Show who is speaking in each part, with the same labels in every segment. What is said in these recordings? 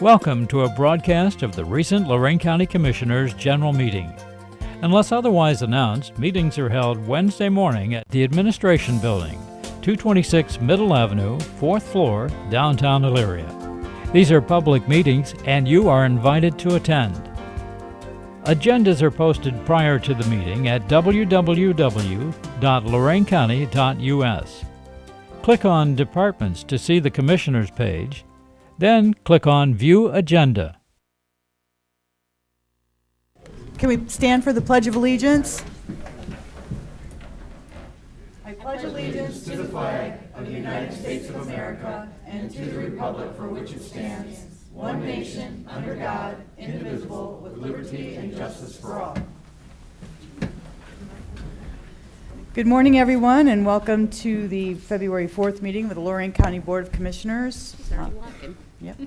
Speaker 1: Welcome to a broadcast of the recent Lorraine County Commissioners' General Meeting. Unless otherwise announced, meetings are held Wednesday morning at the Administration Building, 226 Middle Avenue, 4th floor, downtown Elyria. These are public meetings and you are invited to attend. Agendas are posted prior to the meeting at www.loraincounty.us. Click on Departments to see the Commissioners page, then click on View Agenda.
Speaker 2: Can we stand for the Pledge of Allegiance? Good morning, everyone, and welcome to the February 4th meeting with the Lorraine County Board of Commissioners. Yep.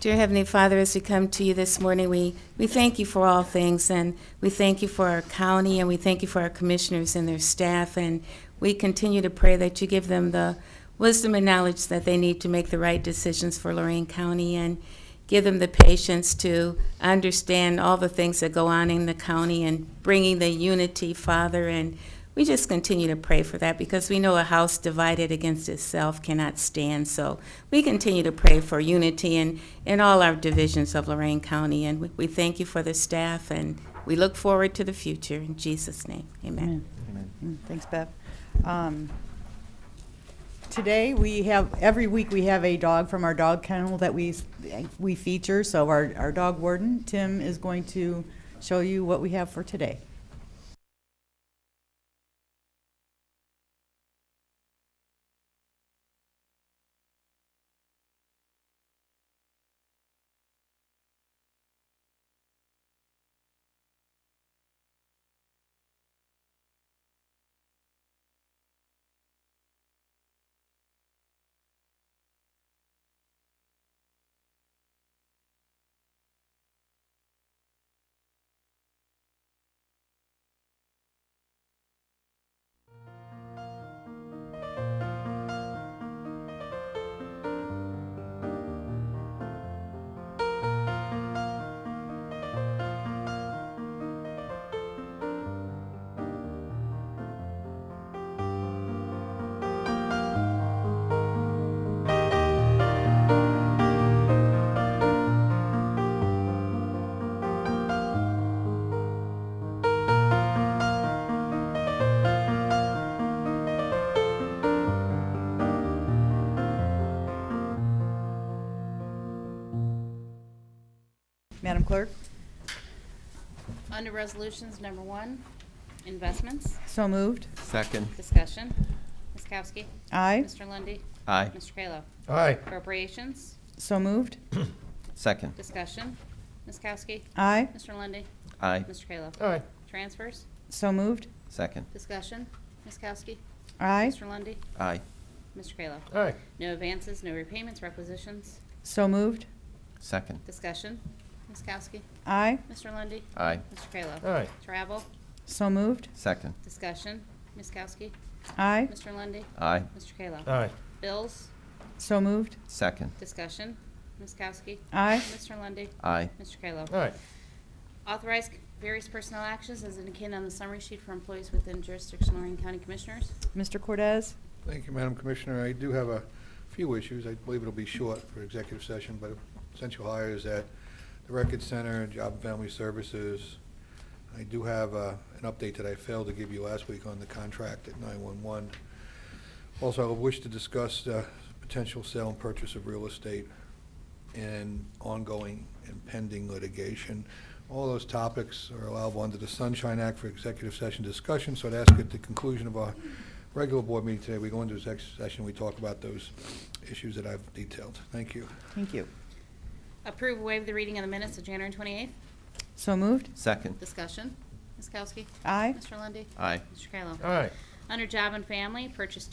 Speaker 3: Dear Heavenly Father, as we come to you this morning, we, we thank you for all things, and we thank you for our county, and we thank you for our commissioners and their staff, and we continue to pray that you give them the wisdom and knowledge that they need to make the right decisions for Lorraine County, and give them the patience to understand all the things that go on in the county, and bringing the unity, Father, and we just continue to pray for that because we know a house divided against itself cannot stand. So we continue to pray for unity in, in all our divisions of Lorraine County. And we, we thank you for the staff and we look forward to the future. In Jesus' name, amen.
Speaker 2: Amen. Mm, Thanks, Bev. Um, Today, we have, every week, we have a dog from our dog kennel that we, s- we feature. So our, our dog warden, Tim, is going to show you what we have for today. Madam Clerk?
Speaker 4: Under Resolutions Number One, Investments,
Speaker 2: So moved.
Speaker 5: Second.
Speaker 4: Discussion. Ms. Kowski.
Speaker 2: Aye.
Speaker 4: Mr. Lundy,
Speaker 5: Aye.
Speaker 4: Mr. Kayla.
Speaker 6: Aye.
Speaker 4: Appropriations,
Speaker 2: So moved.
Speaker 5: Second.
Speaker 4: Discussion. Ms. Kowski.
Speaker 2: Aye.
Speaker 4: Mr. Lundy,
Speaker 5: Aye.
Speaker 4: Mr. Kayla.
Speaker 6: Aye.
Speaker 4: Transfers,
Speaker 2: So moved.
Speaker 5: Second.
Speaker 4: Discussion. Ms. Kowski.
Speaker 2: Aye.
Speaker 4: Mr. Lundy,
Speaker 5: Aye.
Speaker 4: Mr. Kayla.
Speaker 6: Aye.
Speaker 4: No advances, no repayments, requisitions,
Speaker 2: So moved.
Speaker 5: Second.
Speaker 4: Discussion. Ms. Kowski.
Speaker 2: Aye.
Speaker 4: Mr. Lundy,
Speaker 5: Aye.
Speaker 4: Mr. Kayla.
Speaker 6: Aye.
Speaker 4: Travel,
Speaker 2: So moved.
Speaker 5: Second.
Speaker 4: Discussion. Ms. Kowski.
Speaker 2: Aye.
Speaker 4: Mr. Lundy,
Speaker 5: Aye.
Speaker 4: Mr. Kayla.
Speaker 6: Aye.
Speaker 4: Bills,
Speaker 2: So moved.
Speaker 5: Second.
Speaker 4: Discussion. Ms. Kowski.
Speaker 2: Aye.
Speaker 4: Mr. Lundy,
Speaker 5: Aye.
Speaker 4: Mr. Kayla.
Speaker 6: Aye.
Speaker 4: Authorize various personnel actions as indicated on the summary sheet for employees within jurisdiction of Lorraine County Commissioners.
Speaker 2: Mr. Cortez?
Speaker 7: Thank you, Madam Commissioner. I do have a few issues. I believe it'll be short for executive session, but essential hires at the Record Center, Job and Family Services. I do have uh, an update that I failed to give you last week on the contract at 911. Also, I wish to discuss the potential sale and purchase of real estate and ongoing and pending litigation. All those topics are allowable under the Sunshine Act for executive session discussion, so I'd ask at the conclusion of our regular board meeting today, we go into executive session, we talk about those issues that I've detailed. Thank you.
Speaker 2: Thank you.
Speaker 4: Approve waive the reading of the minutes of January 28th.
Speaker 2: So moved.
Speaker 5: Second.
Speaker 4: Discussion. Ms. Kowski.
Speaker 2: Aye.
Speaker 4: Mr. Lundy,
Speaker 5: Aye.
Speaker 4: Mr. Kayla.
Speaker 6: Aye.
Speaker 4: Under Job and Family, purchase